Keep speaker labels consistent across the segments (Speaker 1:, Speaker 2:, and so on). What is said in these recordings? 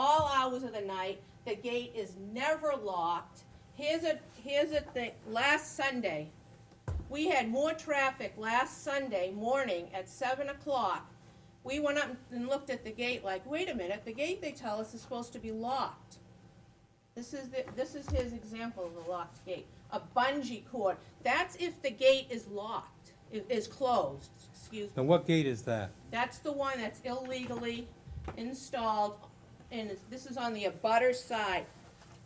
Speaker 1: hours of the night, the gate is never locked. Here's a, here's a thing, last Sunday, we had more traffic last Sunday morning at seven o'clock. We went up and looked at the gate like, wait a minute, the gate they tell us is supposed to be locked. This is the, this is his example of a locked gate, a bungee cord. That's if the gate is locked, i- is closed, excuse me.
Speaker 2: Now, what gate is that?
Speaker 1: That's the one that's illegally installed, and it's- this is on the abutter side.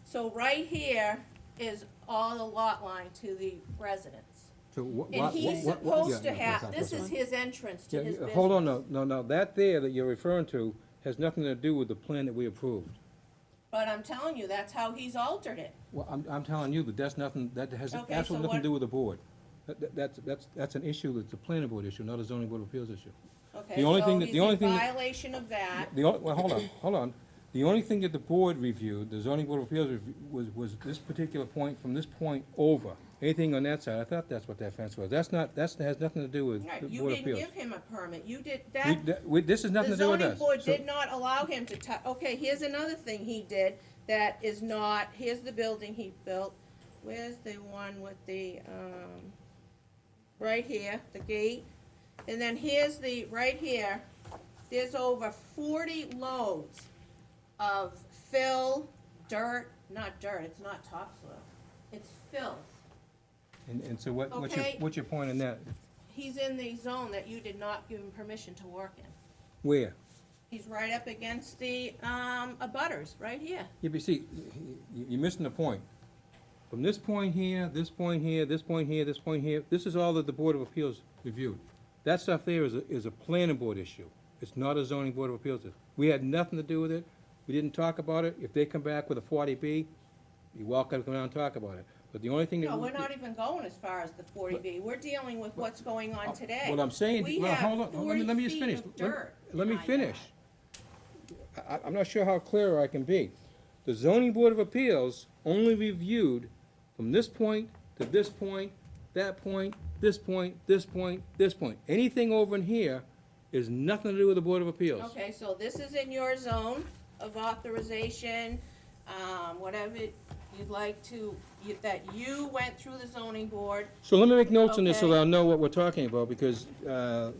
Speaker 1: So right here is all the lot line to the residents.
Speaker 2: To wha-
Speaker 1: And
Speaker 2: what-
Speaker 1: he's
Speaker 2: what- what-
Speaker 1: supposed to
Speaker 2: yeah, yeah,
Speaker 1: have, this is his entrance to
Speaker 2: yeah,
Speaker 1: his
Speaker 2: yeah,
Speaker 1: business.
Speaker 2: Hold on, no, no, no, that there that you're referring to has nothing to do with the plan that we approved.
Speaker 1: But I'm telling you, that's how he's altered it.
Speaker 2: Well, I'm, I'm telling you that that's nothing, that has
Speaker 1: Okay, so
Speaker 2: absolutely nothing
Speaker 1: what-
Speaker 2: to do with the board. That- that- That's, that's, that's an issue that's a planning board issue, not a zoning board of appeals issue.
Speaker 1: Okay,
Speaker 2: The only
Speaker 1: so
Speaker 2: thing that-
Speaker 1: he's
Speaker 2: the only
Speaker 1: in
Speaker 2: thing that-
Speaker 1: violation of that.
Speaker 2: The, on- well, hold on, hold on. The only thing that the board reviewed, the zoning board of appeals review- was, was this particular point, from this point over. Anything on that side, I thought that's what that fence was. That's not, that's, has nothing to do with
Speaker 1: Right,
Speaker 2: the
Speaker 1: you
Speaker 2: board of
Speaker 1: didn't
Speaker 2: appeals.
Speaker 1: give him a permit, you did,
Speaker 2: We-
Speaker 1: that,
Speaker 2: that- we- This has nothing
Speaker 1: the
Speaker 2: to do with
Speaker 1: zoning
Speaker 2: us.
Speaker 1: board
Speaker 2: So-
Speaker 1: did not allow him to tou- okay, here's another thing he did that is not, here's the building he built. Where's the one with the, um, right here, the gate, and then here's the, right here, there's over forty loads of fill, dirt, not dirt, it's not topsoil, it's filth.
Speaker 2: And, and so what, what's your,
Speaker 1: Okay.
Speaker 2: what's your point in that?
Speaker 1: He's in the zone that you did not give him permission to work in.
Speaker 2: Where?
Speaker 1: He's right up against the, um, abutters, right here.
Speaker 2: Yeah, but see, you- you're missing the point. From this point here, this point here, this point here, this point here, this is all that the Board of Appeals reviewed. That stuff there is, a- is a planning board issue. It's not a zoning board of appeals. issue. We had nothing to do with it. We didn't talk about it. If they come back with a forty B, you're welcome to come down and talk about it. But the only thing that.
Speaker 1: No, we're not even going as far as the forty B, we're dealing with what's going on today.
Speaker 2: uh, What I'm saying,
Speaker 1: We
Speaker 2: well,
Speaker 1: have
Speaker 2: hold on, let me, let me just
Speaker 1: 40 feet
Speaker 2: finish.
Speaker 1: of
Speaker 2: Let-
Speaker 1: dirt
Speaker 2: Let me
Speaker 1: behind
Speaker 2: finish. I, I- I'm not sure how clear I can be. The zoning board of appeals only reviewed from this point to this point, that point, this point, this point, this point. Anything over in here is nothing to do with the board of appeals.
Speaker 1: Okay, so this is in your zone of authorization, um, whatever you'd like to, you- that you went through the zoning board.
Speaker 2: So let me make notes on this so
Speaker 1: Okay.
Speaker 2: that I'll know what we're talking about, because, uh,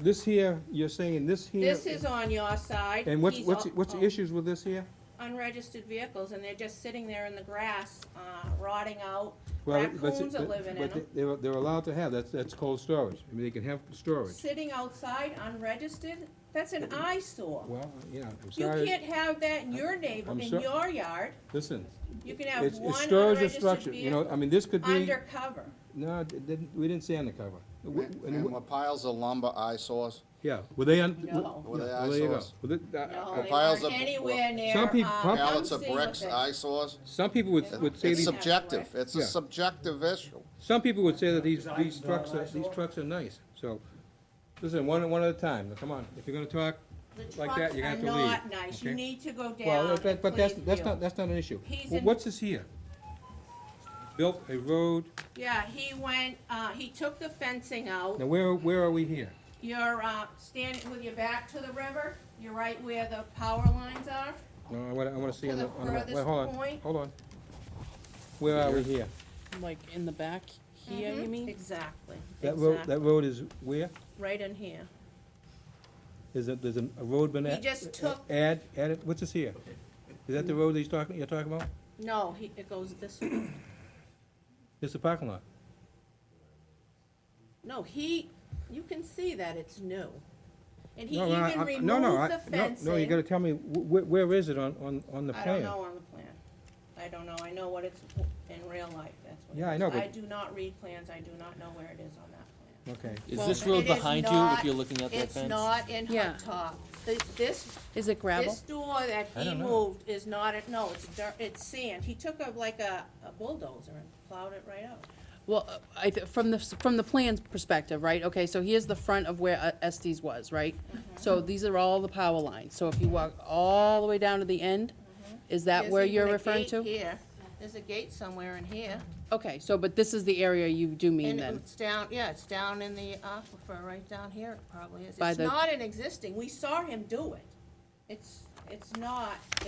Speaker 2: this here, you're saying this here.
Speaker 1: This is on your side.
Speaker 2: And what's,
Speaker 1: He's
Speaker 2: what's,
Speaker 1: al-
Speaker 2: what's the
Speaker 1: oh.
Speaker 2: issues with this here?
Speaker 1: unregistered vehicles, and they're just sitting there in the grass, uh, rotting out.
Speaker 2: Well, but-
Speaker 1: Raccoons are
Speaker 2: but-
Speaker 1: living in
Speaker 2: but
Speaker 1: them,
Speaker 2: They're, they're allowed to have, that's, that's cold storage, I mean, they can have storage.
Speaker 1: sitting outside unregistered, that's an eyesore.
Speaker 2: Well, yeah, I'm
Speaker 1: You
Speaker 2: sorry,
Speaker 1: can't have that in your neighbor,
Speaker 2: I'm
Speaker 1: in
Speaker 2: sor-
Speaker 1: your yard,
Speaker 2: listen,
Speaker 1: you can have
Speaker 2: it's,
Speaker 1: one
Speaker 2: it's storage or
Speaker 1: unregistered
Speaker 2: structure, you know,
Speaker 1: vehicle
Speaker 2: I mean, this could be,
Speaker 1: undercover.
Speaker 2: no, it didn't, we didn't say undercover. W- and
Speaker 3: And
Speaker 2: w-
Speaker 3: were piles of lumber eyesores?
Speaker 2: Yeah, were they, un-
Speaker 1: No.
Speaker 2: w-
Speaker 3: Were they
Speaker 2: yeah, well, there you go.
Speaker 3: eyesores?
Speaker 2: Well, th- I-
Speaker 1: No,
Speaker 2: I-
Speaker 1: they
Speaker 3: piles
Speaker 1: weren't
Speaker 3: of-
Speaker 1: anywhere near,
Speaker 2: Uh, Some
Speaker 1: um,
Speaker 2: peop- some-
Speaker 3: Pallets of
Speaker 1: Muncie
Speaker 3: bricks,
Speaker 1: with it.
Speaker 3: eyesores?
Speaker 2: Some people would, would say
Speaker 3: It's
Speaker 2: these,
Speaker 1: sub-
Speaker 3: subjective, it's a
Speaker 2: Yeah.
Speaker 3: subjective issue.
Speaker 2: some people would say that these,
Speaker 4: Design
Speaker 2: these trucks are, these
Speaker 4: eyesore.
Speaker 2: trucks are nice, so, listen, one, one at a time, Now, come on, if you're gonna talk,
Speaker 1: The
Speaker 2: like that,
Speaker 1: trucks
Speaker 2: you're gonna
Speaker 1: are
Speaker 2: have to leave,
Speaker 1: not nice, you
Speaker 2: okay?
Speaker 1: need to go down
Speaker 2: Well,
Speaker 1: and
Speaker 2: that- but that's,
Speaker 1: please
Speaker 2: that's
Speaker 1: view.
Speaker 2: not, that's not an issue.
Speaker 1: He's
Speaker 2: Well,
Speaker 1: in-
Speaker 2: What's this here? Built a road,
Speaker 1: Yeah, he went, uh, he took the fencing out.
Speaker 2: now where, where are we here?
Speaker 1: You're, uh, standing with your back to the river, you're right where the power lines are.
Speaker 2: No, I wanna, I wanna see on the,
Speaker 1: To the
Speaker 2: on the, wait,
Speaker 1: furthest
Speaker 2: hold on,
Speaker 1: point.
Speaker 2: hold on. Where are we here?
Speaker 5: Like in the back here,
Speaker 1: Mm-hmm.
Speaker 5: you mean?
Speaker 1: Exactly,
Speaker 2: That road,
Speaker 1: exactly,
Speaker 2: that road is where?
Speaker 1: right in here.
Speaker 2: Is it, there's a a road been
Speaker 1: He
Speaker 2: a-
Speaker 1: just took-
Speaker 2: Add, added, what's this here? Is that the road that he's talking, you're talking about?
Speaker 1: No, he, it goes this way.
Speaker 2: It's a parking lot.
Speaker 1: No, he, you can see that it's new. And he
Speaker 2: No, no, I-
Speaker 1: even
Speaker 2: I- no, no,
Speaker 1: removed
Speaker 2: I-
Speaker 1: the
Speaker 2: no,
Speaker 1: fencing.
Speaker 2: No, you gotta tell me, wh- wh- where is it on, on, on the
Speaker 1: I
Speaker 2: plan?
Speaker 1: don't know on the plan. I don't know, I know what it's in real life, that's what it is.
Speaker 2: Yeah, I know, but-
Speaker 1: I do not read plans, I do not know where it is on that plan.
Speaker 2: Okay,
Speaker 6: Is this
Speaker 1: Well,
Speaker 6: road
Speaker 1: it is
Speaker 6: behind you
Speaker 1: not-
Speaker 6: if you're looking at that
Speaker 1: It's
Speaker 6: fence?
Speaker 1: not in
Speaker 5: Yeah.
Speaker 1: hot top. This, this
Speaker 5: Is it gravel?
Speaker 1: This door that
Speaker 2: I
Speaker 1: he
Speaker 2: don't know.
Speaker 1: moved is not, a- no, it's dirt, it's sand. He took up like a a bulldozer and plowed it right out.
Speaker 5: Well, uh, I, th- from the, s- from the plan's perspective, right, okay, so here's the front of where uh, Estes was, right?
Speaker 1: Mm-hmm.
Speaker 5: So these are all the power lines, so if you walk all the way down to the end, is that
Speaker 1: There's
Speaker 5: where
Speaker 1: Mm-hmm. even
Speaker 5: you're
Speaker 1: a
Speaker 5: referring
Speaker 1: gate
Speaker 5: to?
Speaker 1: Here, there's a gate somewhere in here.
Speaker 5: Okay, so, but this is the area you do mean
Speaker 1: And
Speaker 5: then?
Speaker 1: it's down, yeah, it's down in the aquifer, right down here it probably is.
Speaker 5: By
Speaker 1: It's
Speaker 5: the-
Speaker 1: not an existing, we saw him do it. It's, it's not,